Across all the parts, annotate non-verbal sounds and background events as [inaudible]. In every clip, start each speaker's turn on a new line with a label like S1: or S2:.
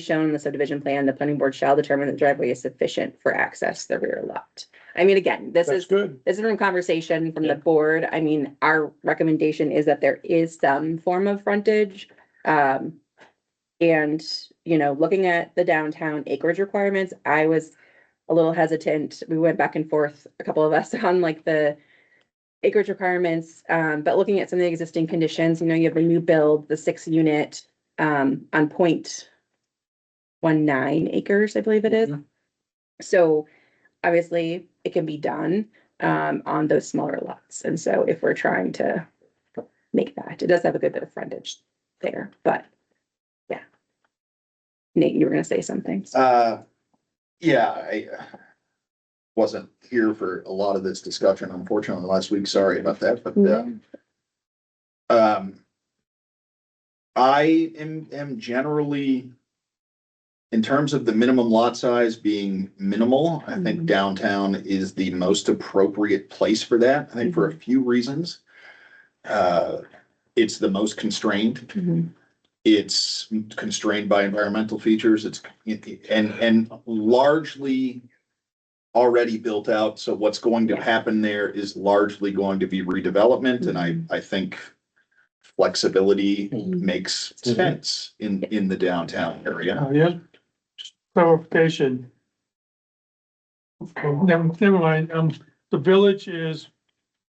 S1: shown in the subdivision plan, the planning board shall determine that the driveway is sufficient for access to the rear lot. I mean, again, this
S2: That's
S1: is,
S2: good.
S1: this is from conversation from
S2: Yeah.
S1: the board. I mean, our recommendation is that there is some form of frontage. Um, and, you know, looking at the downtown acreage requirements, I was a little hesitant. We went back and forth, a couple of us, [laughs] on like the acreage requirements, um, but looking at some of the existing conditions, you know, you have a new build, the six unit, um, on point one nine acres, I believe it is. So obviously it can be done, um, on those smaller lots. And so if we're trying to make that, it does have a good bit of frontage there, but yeah. Nate, you were gonna say something.
S3: Uh, yeah, I uh, wasn't here for a lot of this discussion unfortunately last week. Sorry about that, but, uh, um, I am, am generally, in terms of the minimum lot size being minimal, I think
S1: Mhm.
S3: downtown is the most appropriate place for that. I think for a few reasons. Uh, it's the most constrained.
S1: Mhm.
S3: It's constrained by environmental features, it's, and, and largely already built out, so what's going to
S1: Yeah.
S3: happen there is largely going to be redevelopment, and I, I think flexibility
S1: Mhm.
S3: makes
S2: Mhm.
S3: sense in, in the downtown area.
S2: Oh, yeah. Just Clarification. Oh, Never, never mind, um, the village is,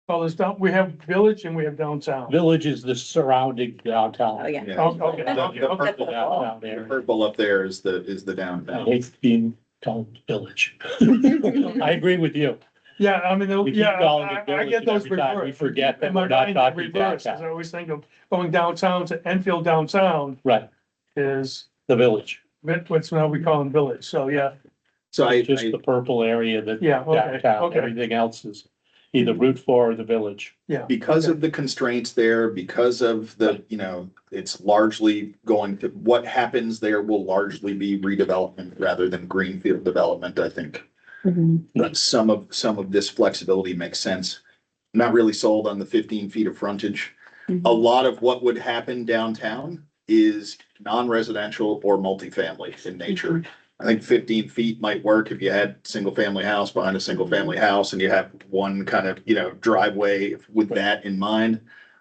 S2: well, there's down, we have village and we have downtown.
S4: Village is the surrounding
S1: Oh,
S4: downtown.
S1: yeah.
S3: Yeah.
S2: Oh, Okay, okay,
S3: The
S2: okay.
S4: The downtown
S3: The
S4: area.
S3: Purple up there is the, is the
S4: I
S3: downtown.
S4: hate being called
S1: [laughs]
S4: village. I agree with you.
S2: Yeah, I mean,
S4: We keep
S2: yeah,
S4: calling
S2: I,
S4: it
S2: I
S4: village
S2: get
S4: and
S2: those
S4: every time we
S2: reversed.
S4: forget that
S2: In my
S4: we're not
S2: mind, it
S4: talking
S2: reverses. I
S4: downtown.
S2: always think of going downtown to Enfield downtown
S4: Right,
S2: is
S4: the village,
S2: what- what's now we call them village, so yeah,
S3: So I,
S4: just the purple area that
S2: yeah, okay,
S4: downtown,
S2: okay.
S4: everything else is either Route Four or the village.
S3: I- because of the constraints there, because of the, you know, it's largely going to, what happens there will largely be redevelopment rather than greenfield development, I think.
S1: Mhm.
S3: But some of, some of this flexibility makes sense. Not really sold on the fifteen feet of frontage. A
S1: Oh.
S3: lot of what would happen downtown is non-residential or multifamily in nature. I think fifteen feet might work if you had single-family house behind a single-family house and you have one kind of, you know, driveway with that in mind.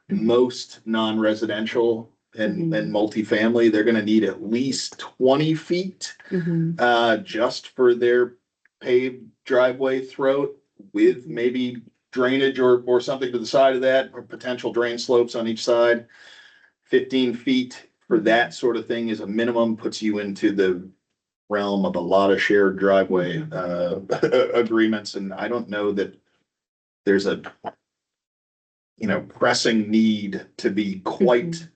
S3: Most non-residential and, and multifamily, they're gonna need at least twenty feet
S1: Mhm.
S3: uh, just for their paved driveway throat with maybe drainage or, or something to the side of that, or potential drain slopes on each side. Fifteen feet for that sort of thing is a minimum, puts you into the realm of a lot of shared driveway, uh, [laughs] agreements, and I don't know that there's a you know, pressing need to be quite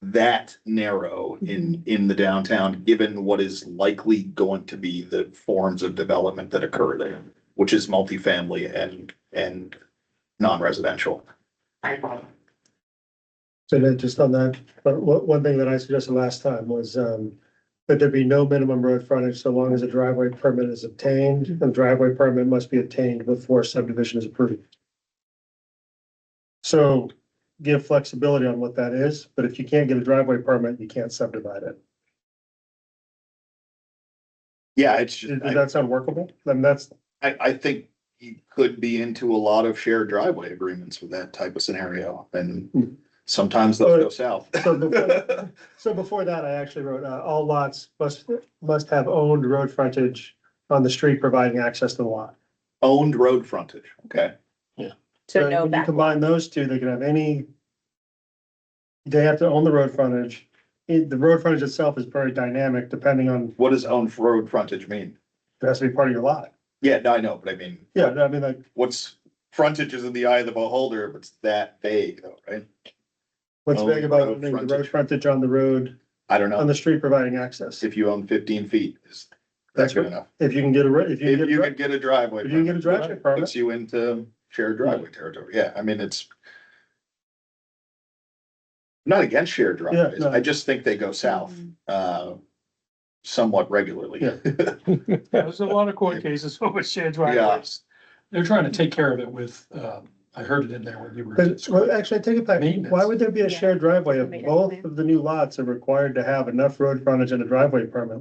S3: that narrow in, in the downtown, given what is likely going to be the forms of development that occur there, which is multifamily and, and non-residential.
S5: So then just on that, but one, one thing that I suggested last time was, um, that there be no minimum road frontage so long as a driveway permit is obtained, and driveway permit must be obtained before subdivision is approved. So give flexibility on what that is, but if you can't get a driveway permit, you can't subdivide it.
S3: Yeah, it's,
S5: Does
S3: just- I,
S5: that sound workable? Then that's,
S3: I I think you could be into a lot of shared driveway agreements with that type of scenario, and sometimes they'll go south. [laughs]
S5: so before, so before that, I actually wrote, uh, all lots must, must have owned road frontage on the street providing access to the lot.
S3: Owned road frontage, okay?
S1: So
S5: So
S1: no
S5: when you
S1: back.
S5: combine those two, they can have any. They have to own the road frontage. It- the road frontage itself is very dynamic depending on,
S3: What does owned road frontage mean?
S5: it has to be part of your lot.
S3: Yeah, no, I know, but I mean,
S5: Yeah, I mean, like,
S3: what's frontage is in the eye of the beholder, if it's that vague though, right?
S5: what's
S3: Own
S5: big about
S3: road
S5: owning the road
S3: frontage.
S5: frontage on the road,
S3: I don't
S5: on
S3: know,
S5: the street providing access?
S3: if you own fifteen feet, is that
S5: That's
S3: good
S5: right.
S3: enough?
S5: If you can get a, ro- if you
S3: If
S5: can
S3: you
S5: get, a
S3: could
S5: dri-
S3: get a driveway.
S5: if you can get a driveway
S3: permit, Puts
S5: permit,
S3: you into shared driveway territory, yeah, I mean, it's. I'm Not against shared driveways,
S5: no.
S3: I just think they go south, uh, somewhat regularly.
S5: Yeah.
S2: Yeah, There's a lot of court cases over shared driveways.
S6: They're trying to take care of it with, um,
S4: uh, I heard it in there when you were.
S5: But, well, actually, I take it back.
S4: Maintenance.
S5: Why would there be a
S1: Yeah.
S5: shared driveway if
S1: Somebody doesn't
S5: both
S1: have-
S5: of the new lots are required to have enough road frontage and a driveway permit?